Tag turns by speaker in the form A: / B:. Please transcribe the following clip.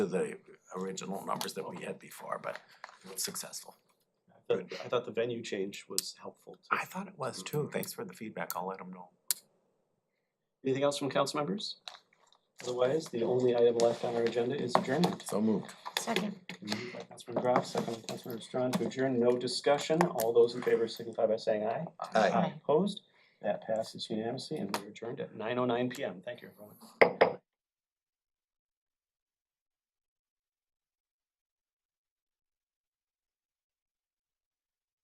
A: to the original numbers that we had before, but it was successful.
B: I thought, I thought the venue change was helpful too.
A: I thought it was too. Thanks for the feedback. I'll let them know.
B: Anything else from council members? Otherwise, the only item left on our agenda is adjournment.
C: So moved.
D: Second.
B: Moved by Councilman Graff, second by Councilman Strawn to adjourn, no discussion, all those in favor signify by saying aye.
C: Aye.
D: Aye.
B: Opposed, that passes unanimously and we're adjourned at nine oh nine PM, thank you everyone.